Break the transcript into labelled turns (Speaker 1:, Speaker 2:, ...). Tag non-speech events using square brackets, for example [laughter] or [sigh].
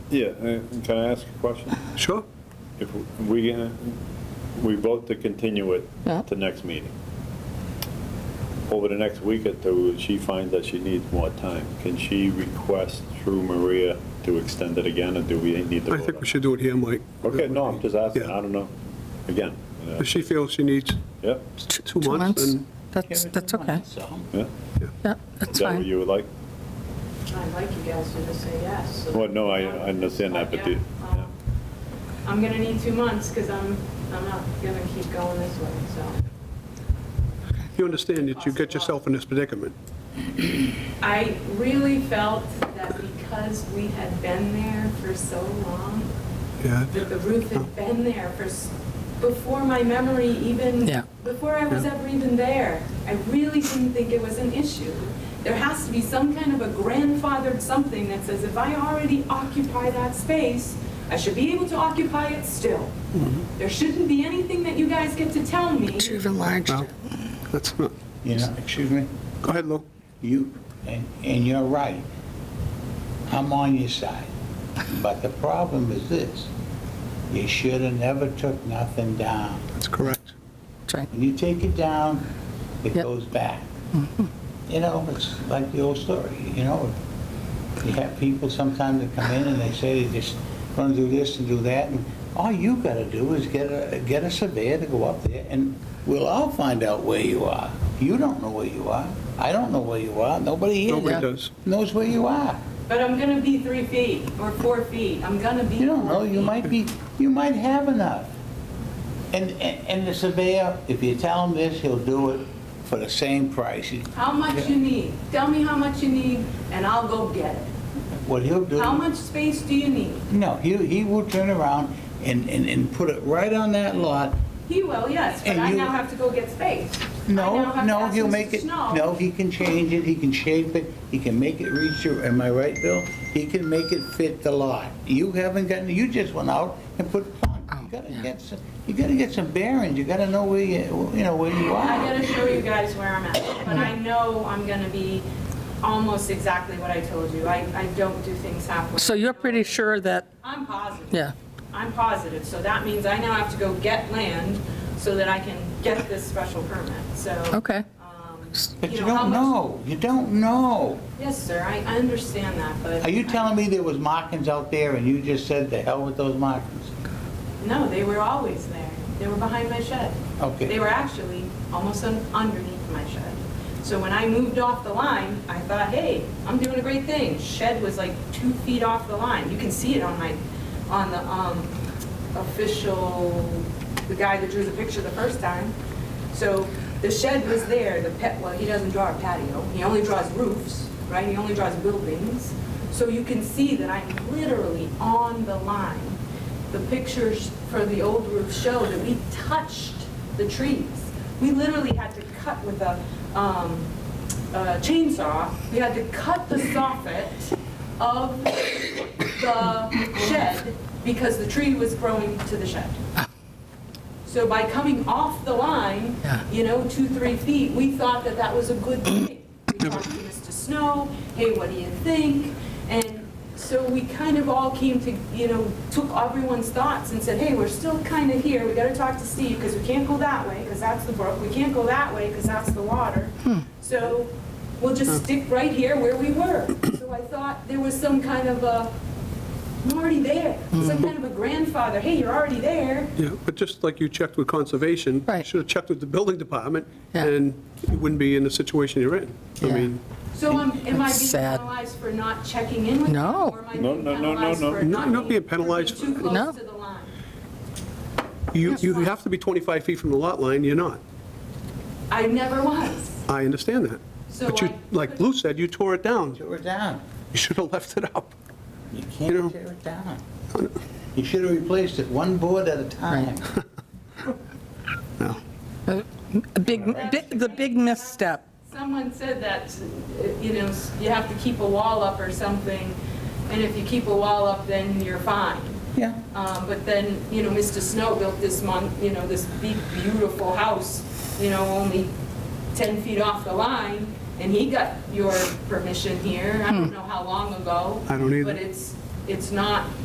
Speaker 1: Yeah, and can I ask a question?
Speaker 2: Sure.
Speaker 1: If we, uh, we vote to continue it
Speaker 3: Yeah.
Speaker 1: to next meeting. Over the next week or two, she finds that she needs more time. Can she request through Maria to extend it again, or do we need to
Speaker 2: I
Speaker 1: vote
Speaker 2: think
Speaker 1: on it?
Speaker 2: we should do it here, Mike.
Speaker 1: Okay, no, I'm just asking,
Speaker 2: Yeah.
Speaker 1: I don't know. Again, you know,
Speaker 2: If she feels she needs
Speaker 1: yep,
Speaker 2: t- two months, then
Speaker 3: That's, that's okay.
Speaker 1: yeah.
Speaker 3: Yeah,
Speaker 1: Is
Speaker 3: that's
Speaker 1: that what
Speaker 3: fine.
Speaker 1: you would like?
Speaker 4: I'd like you guys to just say yes. so
Speaker 1: Well,
Speaker 4: that-
Speaker 1: no, I- I understand that, but
Speaker 4: Yeah,
Speaker 1: the-
Speaker 4: um, I'm gonna need two months, because I'm, I'm not gonna keep going this way, so.
Speaker 2: you understand that you get yourself in this predicament.
Speaker 4: I really felt that because we had been there for so long,
Speaker 2: Yeah.
Speaker 4: that the roof had been there for, s- before my memory even,
Speaker 3: Yeah.
Speaker 4: before I was ever even there. I really didn't think it was an issue. There has to be some kind of a grandfathered something that says, if I already occupy that space, I should be able to occupy it still. There shouldn't be anything that you guys get to tell me.
Speaker 3: You've enlarged
Speaker 2: Well, that's not,
Speaker 5: You know, excuse me,
Speaker 2: go ahead, Lou.
Speaker 5: you, and, and you're right. I'm on your side. But the problem is this, you should have never took nothing down.
Speaker 2: That's correct.
Speaker 3: That's right.
Speaker 5: When you take it down, it
Speaker 3: Yep.
Speaker 5: goes back. You know, it's like the old story, you know? You have people sometimes that come in and they say they just want to do this and do that, and all you got to do is get a, get a surveyor to go up there, and we'll all find out where you are. You don't know where you are. I don't know where you are. Nobody
Speaker 2: Nobody
Speaker 5: here
Speaker 2: does.
Speaker 5: knows where you are.
Speaker 4: But I'm gonna be three feet or four feet. I'm gonna be.
Speaker 5: You don't know,
Speaker 4: four
Speaker 5: you
Speaker 4: feet.
Speaker 5: might be, you might have enough. And, and and the surveyor, if you tell him this, he'll do it for the same price. He-
Speaker 4: How much you need. Tell me how much you need, and I'll go get it.
Speaker 5: What he'll do.
Speaker 4: How much space do you need?
Speaker 5: No, he, he will turn around and, and, and put it right on that lot.
Speaker 4: He will, yes, but
Speaker 5: And
Speaker 4: I
Speaker 5: you-
Speaker 4: now have to go get space. I now
Speaker 5: No,
Speaker 4: have to
Speaker 5: no,
Speaker 4: ask
Speaker 5: he'll
Speaker 4: Mr.
Speaker 5: make it,
Speaker 4: Snow.
Speaker 5: no, he can change it, he can shape it, he can make it reach your, am I right, Bill? He can make it fit the lot. You haven't gotten, you just went out and put, you gotta get some, you gotta get some bearings, you gotta know where you, you know, where you
Speaker 4: I
Speaker 5: are.
Speaker 4: gotta show you guys where I'm at, but I
Speaker 5: Mm-hmm.
Speaker 4: know I'm gonna be almost exactly what I told you. I, I don't do things halfway.
Speaker 3: So you're pretty sure that,
Speaker 4: I'm positive.
Speaker 3: yeah,
Speaker 4: I'm positive, so that means I now have to go get land so that I can get this special permit, so.
Speaker 3: okay.
Speaker 4: um,
Speaker 5: But you
Speaker 4: know, how
Speaker 5: don't
Speaker 4: much-
Speaker 5: know, you don't know.
Speaker 4: Yes, sir, I, I understand that, but.
Speaker 5: Are you telling me there was markings out there and you just said the hell with those markings?
Speaker 4: No, they were always there. They were behind my shed.
Speaker 5: Okay.
Speaker 4: They were actually almost un- underneath my shed. So when I moved off the line, I thought, hey, I'm doing a great thing. Shed was like two feet off the line. You can see it on my, on the um, official, the guy that drew the picture the first time. So the shed was there, the pet, well, he doesn't draw a patio. He only draws roofs, right? He only draws buildings. So you can see that I'm literally on the line the pictures for the old roof show that we touched the trees. We literally had to cut with a um, a chainsaw, we had to cut the soffit of the shed because the tree was growing to the shed. So by coming off the line,
Speaker 3: Yeah.
Speaker 4: you know, two, three feet, we thought that that was a good thing. We talked to Mr. Snow, hey, what do you think? And so we kind of all came to, you know, took everyone's thoughts and said, hey, we're still kind of here, we gotta talk to Steve, because we can't go that way, because that's the brook, we can't go that way, because that's the water. So we'll just stick right here where we were. So I thought there was some kind of a, I'm already there, some kind of a grandfather, hey, you're already there,
Speaker 2: Yeah, but just like you checked with conservation,
Speaker 3: Right.
Speaker 2: should have checked with the building department,
Speaker 3: Yeah.
Speaker 2: and you wouldn't be in the situation you're in. I
Speaker 3: Yeah.
Speaker 2: mean,
Speaker 4: So am, am I
Speaker 3: That's
Speaker 4: being
Speaker 3: sad.
Speaker 4: penalized for not checking in with them?
Speaker 3: No.
Speaker 4: Or am I
Speaker 1: No,
Speaker 4: being
Speaker 1: no, no, no,
Speaker 4: penalized
Speaker 1: no.
Speaker 4: for
Speaker 2: No, not being penalized
Speaker 4: for being
Speaker 2: for-
Speaker 4: Too
Speaker 3: No.
Speaker 4: close to the line.
Speaker 2: you, you have to be 25 feet from the lot line, you're not.
Speaker 4: I never was.
Speaker 2: I understand that.
Speaker 4: So
Speaker 2: But you,
Speaker 4: I-
Speaker 2: like Lou said, you tore it down.
Speaker 5: Tear it down.
Speaker 2: You should have [laughs] left it up.
Speaker 5: You
Speaker 2: You know-
Speaker 5: can't tear it down. You should have replaced it one board at a time.
Speaker 2: No.
Speaker 3: A big, bi- the big misstep.
Speaker 4: Someone said that, uh, you know, s- you have to keep a wall up or something, and if you keep a wall up, then you're fine.
Speaker 5: Yeah.
Speaker 4: Um, But then, you know, Mr. Snow built this mon, you know, this big, beautiful house, you know, only 10 feet off the line, and he got
Speaker 3: Hmm.
Speaker 4: your permission here, I don't know how long ago.
Speaker 2: I don't either.
Speaker 4: But it's, it's not